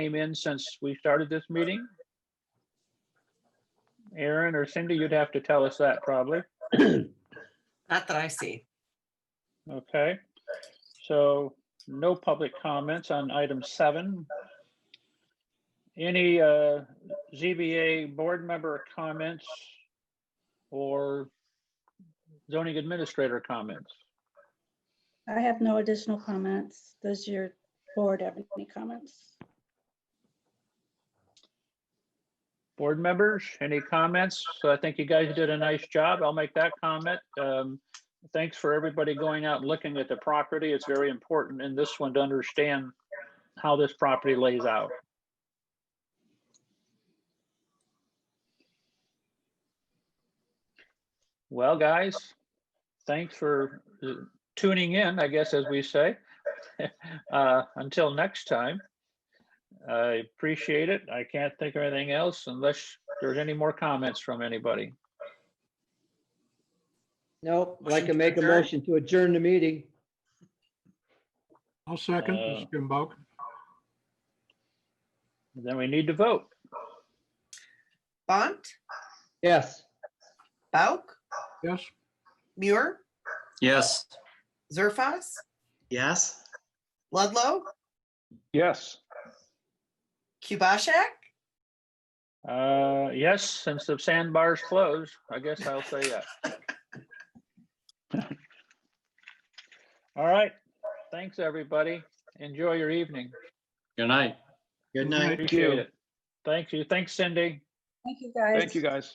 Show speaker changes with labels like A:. A: came in since we started this meeting? Aaron or Cindy, you'd have to tell us that probably.
B: Not that I see.
A: Okay, so no public comments on item seven. Any uh, ZBA board member comments or zoning administrator comments?
C: I have no additional comments. Does your board have any comments?
A: Board members, any comments? So I think you guys did a nice job. I'll make that comment. Um, Thanks for everybody going out and looking at the property. It's very important in this one to understand how this property lays out. Well, guys, thanks for uh, tuning in, I guess, as we say. Uh, Until next time. I appreciate it. I can't think of anything else unless there's any more comments from anybody.
D: Nope, I'd
B: Motion
D: like
B: to
D: to make a
B: adjourn.
D: motion to adjourn the meeting.
E: I'll second,
A: Uh,
E: Mr. Kimball.
A: Then we need to vote.
B: Bont,
D: Yes.
B: Bauk,
E: Yes?
B: Muir,
F: Yes.
B: Zerfas,
F: Yes.
B: Ludlow,
A: Yes.
B: Kubashak.
A: Uh, yes, since the sandbars closed, I guess I'll say yes. All right. Thanks, everybody. Enjoy your evening.
F: Good night. Good
E: night.
A: Appreciate it. Thank you. Thanks, Cindy.
C: Thank you, guys.
G: Thank you, guys.